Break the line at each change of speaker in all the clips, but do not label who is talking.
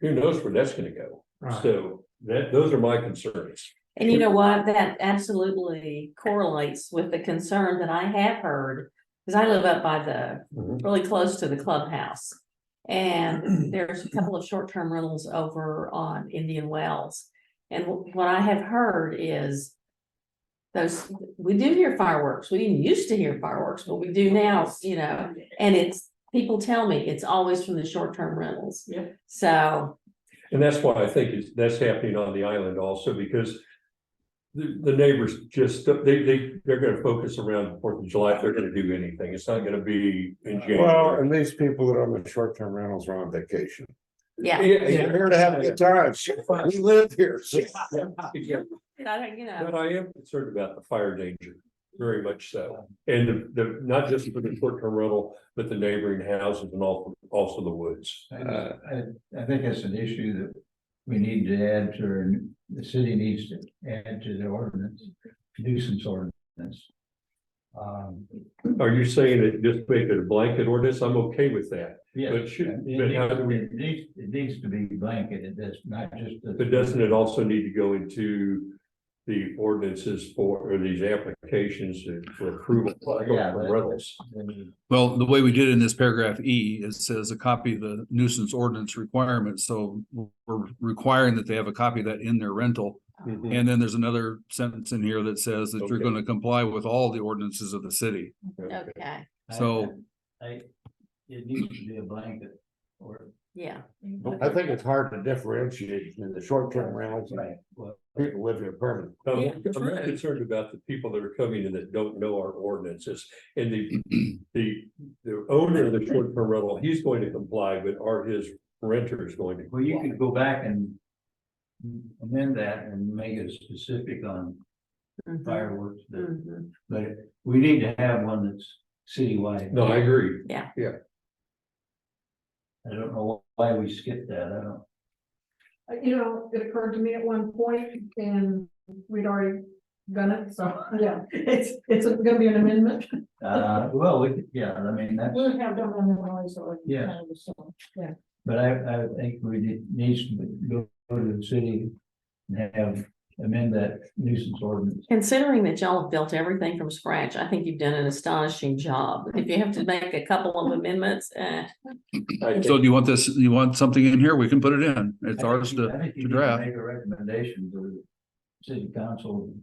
who knows where that's gonna go?
Right.
So that, those are my concerns.
And you know what? That absolutely correlates with the concern that I have heard. Cause I live up by the,
Mm-hmm.
Mhm.
really close to the clubhouse. And there's a couple of short-term rentals over on Indian Wells. And wh- what I have heard is. Those, we do hear fireworks. We didn't used to hear fireworks, but we do now, you know, and it's, people tell me it's always from the short-term rentals.
Yeah.
So,
And that's why I think it's, that's happening on the island also because. The, the neighbors just, they, they, they're gonna focus around Fourth of July if they're gonna do anything. It's not gonna be in
Well,
January.
and these people that are on the short-term rentals are on vacation.
yeah.
They're here to have a good time. We live here.
Yeah,
And I don't, you know,
But I am concerned about the fire danger, very much so. And the- the, not just for the short-term rental, but the neighboring houses and also, also the woods.
I, just- I, I think it's an issue that we need to add to, or the city needs to add to the ordinance, nuisance ordinance. Um,
Are you saying that just make it a blanket ordinance? I'm okay with that.
yeah.
But should-
It
but how do we-
needs- it needs, it needs to be blanketed, that's not just. the-
But doesn't it also need to go into the ordinances for, or these applications for approval? I go
Yeah,
for
but-
rentals.
Well, the way we did it in this paragraph E, it says a copy of the nuisance ordinance requirement, so we're requiring that they have a copy of that in their rental.
Mhm.
And then there's another sentence in here that says that you're
Okay.
gonna comply with all the ordinances of the city.
okay,
So-
I, it needs to be a blanket or.
yeah.
I think it's hard to differentiate between the short-term rentals and
Right, well,
people living here permanently.
I'm
Yeah,
I'm more concerned about the people that are coming in that don't know our ordinances and the, the, the owner of the short-term rental, he's going to comply, but are his renters going to?
Well, you
comply?
could go back and amend that and make it specific on
Mhm.
fireworks, but
Mhm.
But we need to have one that's citywide.
No, I agree.
I don't know why we skipped that, I don't.
Uh, You know, it occurred to me at one point and we'd already done it, so, yeah, it's, it's gonna be an amendment.
Uh, well, we, could- yeah, I mean, that's,
We'll have done an noise or.
Yeah. but I, I think we need, needs to go to the city and have, amend that nuisance ordinance.
Considering that y'all have built everything from scratch, I think you've done an astonishing job. If you have to make a couple of amendments, eh,
I
So
think-
do you want this, you want something in here? We can put it in. It's ours
I
to,
think you need to
to draft.
Make a recommendation to the city council,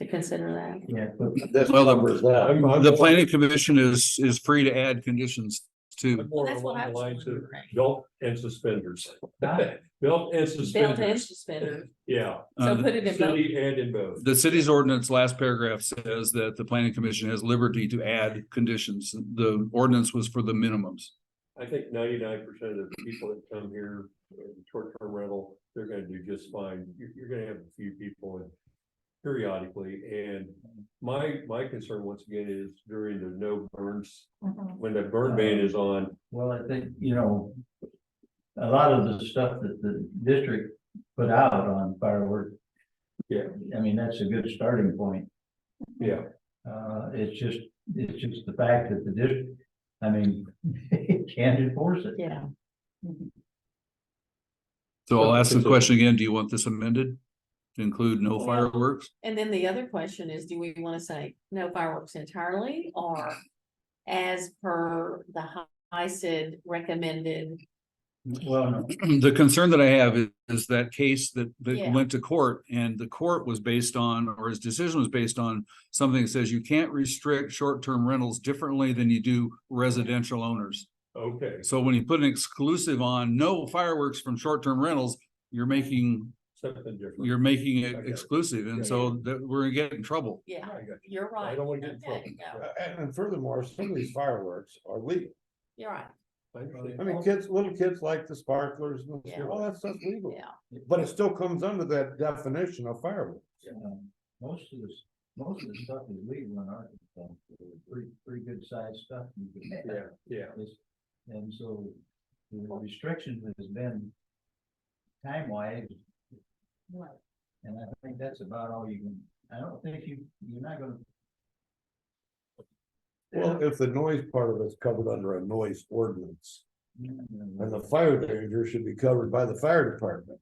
to consider that.
yeah, but
This
Well, the-
covers that.
I'm- I'm-
The planning commission is, is free to add conditions
I'm
to.
more
That's what I
along the
was
lines of
wondering.
belt and suspenders.
Ah.
Belt and
Belt and
suspenders,
suspenders.
yeah.
So
Uh,
put it in both.
City and in both.
The city's ordinance last paragraph says that the planning commission has liberty to add conditions. The ordinance was for the minimums.
I think ninety-nine percent of the people that come here, uh, short-term rental, they're gonna do just fine. You're, you're gonna have a few people in periodically, and my, my concern once again is during the no burns,
Uh-huh.
when the
Uh-huh.
burn ban is on,
Well, I think, you know, a lot of the stuff that the district put out on fireworks.
Yeah.
I mean, that's a good starting point.
yeah.
Uh, it's just, it's just the fact that the district, I mean, can't enforce it.
Yeah,
So I'll ask the
Consider-
question again, do you want this amended to include no
Well-
fireworks?
and then the other question is, do we want to say no fireworks entirely or as per the HICID recommended?
Well, no,
The concern that I have is, is that case that, that
Yeah.
went to court and the court was based on, or his decision was based on something that says you can't restrict short-term rentals differently than you do residential owners.
Okay,
So when you put an exclusive on no fireworks from short-term rentals, you're making,
something different.
you're making
I got
it
it.
exclusive. And so that we're gonna get in trouble.
Yeah,
I got
you're
you. I
right.
don't want to get in trouble.
Okay, no,
And and furthermore, some of these fireworks are legal.
You're right,
I understand.
I mean, kids, little kids like the sparklers and
Yeah.
all that stuff's legal.
yeah.
But it still comes under that definition of fireworks.
um, most of this, most of the stuff is legal in Arkansas, pretty, pretty good sized stuff. you can have.
Yeah, yeah.
It's- And so the restriction has been time wise. And I think that's about all you can, I don't think you, you're not gonna.
Well, if the noise part of it's covered under a noise ordinance,
And
and the fire danger should be covered by the fire department.